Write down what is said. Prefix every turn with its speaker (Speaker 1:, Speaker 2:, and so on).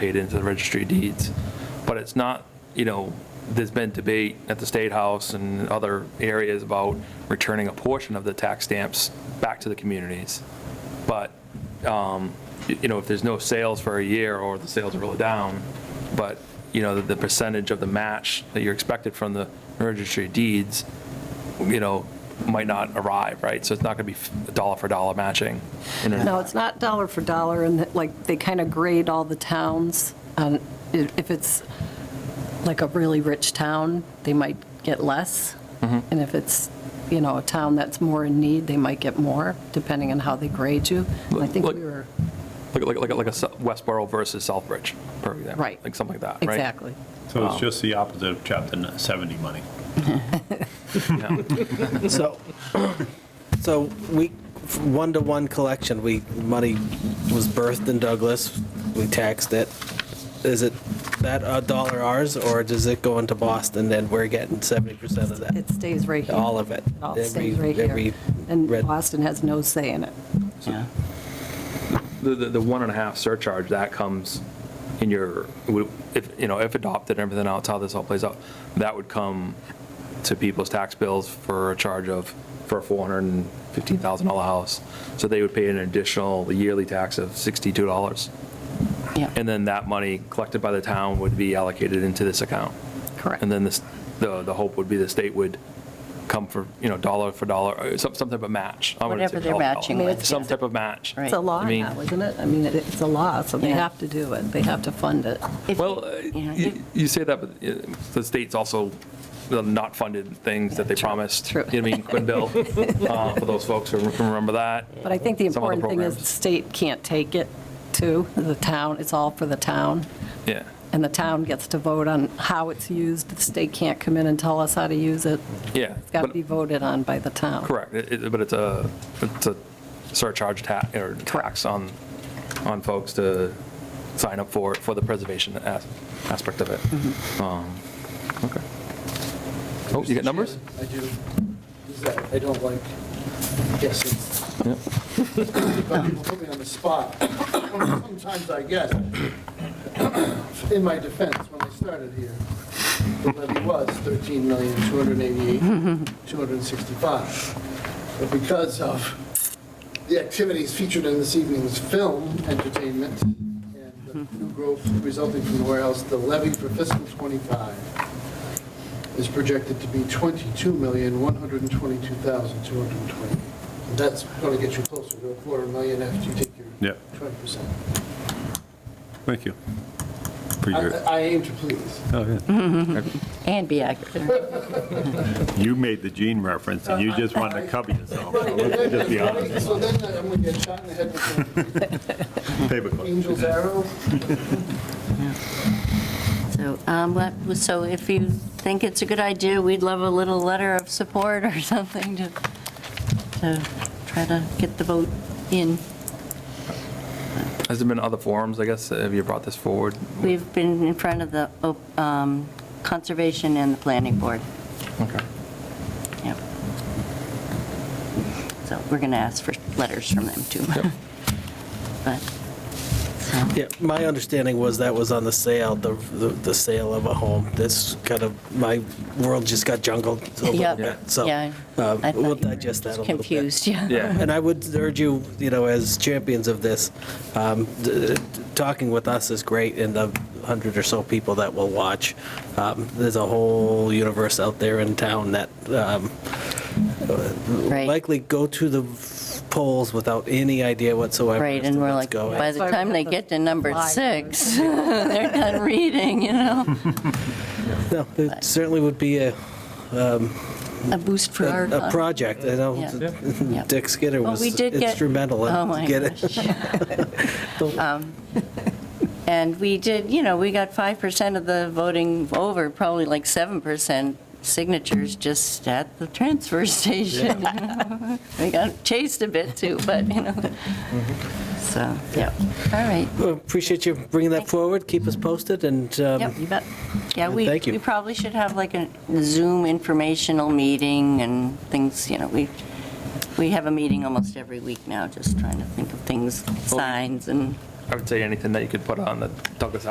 Speaker 1: paid into the registry of deeds. But it's not, you know, there's been debate at the State House and other areas about returning a portion of the tax stamps back to the communities. But, um, y- you know, if there's no sales for a year or the sales are really down, but, you know, the- the percentage of the match that you're expected from the registry of deeds, you know, might not arrive, right? So it's not going to be f- dollar for dollar matching. in a-
Speaker 2: No, it's not dollar for dollar, and that, like, they kind of grade all the towns. Um, i- If it's like a really rich town, they might get less.
Speaker 1: Mm-hmm.
Speaker 2: And if it's, you know, a town that's more in need, they might get more, depending on how they grade you. And I think
Speaker 1: Look-
Speaker 2: we were,
Speaker 1: Like, like, like, like a Sou- Westboro versus Southbridge, for example.
Speaker 2: Right.
Speaker 1: Like something like that, right?
Speaker 2: exactly.
Speaker 3: So it's just the opposite of chapter 70 money.
Speaker 1: Yeah.
Speaker 4: So, so we, one-to-one collection, we, money was birthed in Douglas, we taxed it. Is it that a dollar ours, or does it go into Boston and we're getting 70% of that?
Speaker 2: It stays right here.
Speaker 4: All of it?
Speaker 2: It all stays
Speaker 4: Every-
Speaker 2: right here.
Speaker 4: every
Speaker 2: And
Speaker 4: red-
Speaker 2: Boston has no say in it.
Speaker 1: The, the, the one and a half surcharge, that comes in your, would- if, you know, if adopted and everything else, how this all plays out, that would come to people's tax bills for a charge of, for a $415,000 house. So they would pay an additional yearly tax of $62.
Speaker 2: Yeah,
Speaker 1: And then that money collected by the town would be allocated into this account.
Speaker 2: correct.
Speaker 1: And then this, the, the hope would be the state would come for, you know, dollar for dollar, or some, some type of match. I wouldn't say
Speaker 5: Whatever they're
Speaker 1: dollar for
Speaker 5: matching
Speaker 1: dollar.
Speaker 2: with,
Speaker 1: Some
Speaker 2: yeah.
Speaker 1: type of match.
Speaker 5: Right.
Speaker 2: It's a law
Speaker 1: I mean-
Speaker 2: now, isn't it? I mean, it- it's a law, so they
Speaker 5: Yeah.
Speaker 2: have to do it. They have to fund it.
Speaker 5: If-
Speaker 1: Well, uh,
Speaker 5: yeah,
Speaker 1: you, you say that, but uh, the state's also the not funded things that they promised.
Speaker 2: true.
Speaker 1: You know what I mean, Quinn Bill, uh, for those folks who remember that.
Speaker 2: But I think the
Speaker 1: Some other
Speaker 2: important thing is the
Speaker 1: programs.
Speaker 2: state can't take it to the town, it's all for the town,
Speaker 1: Yeah.
Speaker 2: and the town gets to vote on how it's used, the state can't come in and tell us how to use it.
Speaker 1: Yeah.
Speaker 2: It's got to
Speaker 1: but-
Speaker 2: be voted on by the town.
Speaker 1: Correct, It- it- but it's a, it's a surcharge tax, or tax on, on folks to sign up for, for the preservation as- aspect of it. Um, Okay. Oh, you got numbers?
Speaker 6: I do. This is that I don't like guessing,
Speaker 1: Yep.
Speaker 6: but people put me on the spot. Sometimes I guess. In my defense, when I started here, the levy was 13,288,265. But because of the activities featured in this evening's film, entertainment, and the new growth resulting from the warehouse, the levy for fiscal '25 is projected to be 22,122,220. And That's going to get you closer to a quarter million after you take your
Speaker 3: Yeah.
Speaker 6: 20%.
Speaker 3: Thank you. For
Speaker 6: I- I
Speaker 3: your,
Speaker 6: I aim to please.
Speaker 3: oh, yeah.
Speaker 5: And be accurate.
Speaker 3: You made the Gene reference, and you just wanted to cover yourself. So let's just be honest.
Speaker 6: So then I'm going to get shot in the head with an
Speaker 3: Paperclip.
Speaker 6: angel's arrow.
Speaker 5: So, um, let- so if you think it's a good idea, we'd love a little letter of support or something to, to try to get the vote in.
Speaker 1: Has there been other forums, I guess, have you brought this forward?
Speaker 5: We've been in front of the um, Conservation and the Planning Board.
Speaker 1: Okay.
Speaker 5: Yep. So we're going to ask for letters from them, too. But, so,
Speaker 4: Yeah, my understanding was that was on the sale, the, the the sale of a home. This kind of, my world just got jungled a little
Speaker 5: Yep.
Speaker 4: bit, so.
Speaker 5: yeah.
Speaker 4: uh,
Speaker 5: I thought
Speaker 4: We'll
Speaker 5: you were
Speaker 4: digest that a little bit.
Speaker 5: Confused, yeah.
Speaker 1: Yeah,
Speaker 4: And I would urge you, you know, as champions of this, um, d- d- talking with us is great and the hundred or so people that will watch. Um, There's a whole universe out there in town that um,
Speaker 5: Right.
Speaker 4: likely go to the polls without any idea whatsoever.
Speaker 5: Right,
Speaker 4: as
Speaker 5: and
Speaker 4: to
Speaker 5: we're
Speaker 4: what's
Speaker 5: like,
Speaker 4: going.
Speaker 5: by the
Speaker 2: Sorry,
Speaker 5: time they
Speaker 2: the
Speaker 5: get to number
Speaker 2: live
Speaker 5: six, they're done reading, you know?
Speaker 4: No, It certainly would be a,
Speaker 5: A boost for our.
Speaker 4: a project, you know.
Speaker 5: Yeah. Yeah.
Speaker 4: Dick Skinner
Speaker 5: Well,
Speaker 4: was
Speaker 5: we did get-
Speaker 4: instrumental
Speaker 5: Oh,
Speaker 4: in
Speaker 5: my
Speaker 4: getting.
Speaker 5: gosh. Um, And we did, you know, we got 5% of the voting over, probably like 7% signatures just at the transfer station. We got chased a bit too, but, you know,
Speaker 4: Mm-hmm.
Speaker 5: so, yeah, all right.
Speaker 4: Well, Appreciate you bringing that forward, keep us posted, and um,
Speaker 5: Yep, you bet. Yeah, we,
Speaker 4: Thank you.
Speaker 5: we probably should have like a Zoom informational meeting and things, you know, we, we have a meeting almost every week now, just trying to think of things, signs and.
Speaker 1: I would say anything that you could put on the Douglas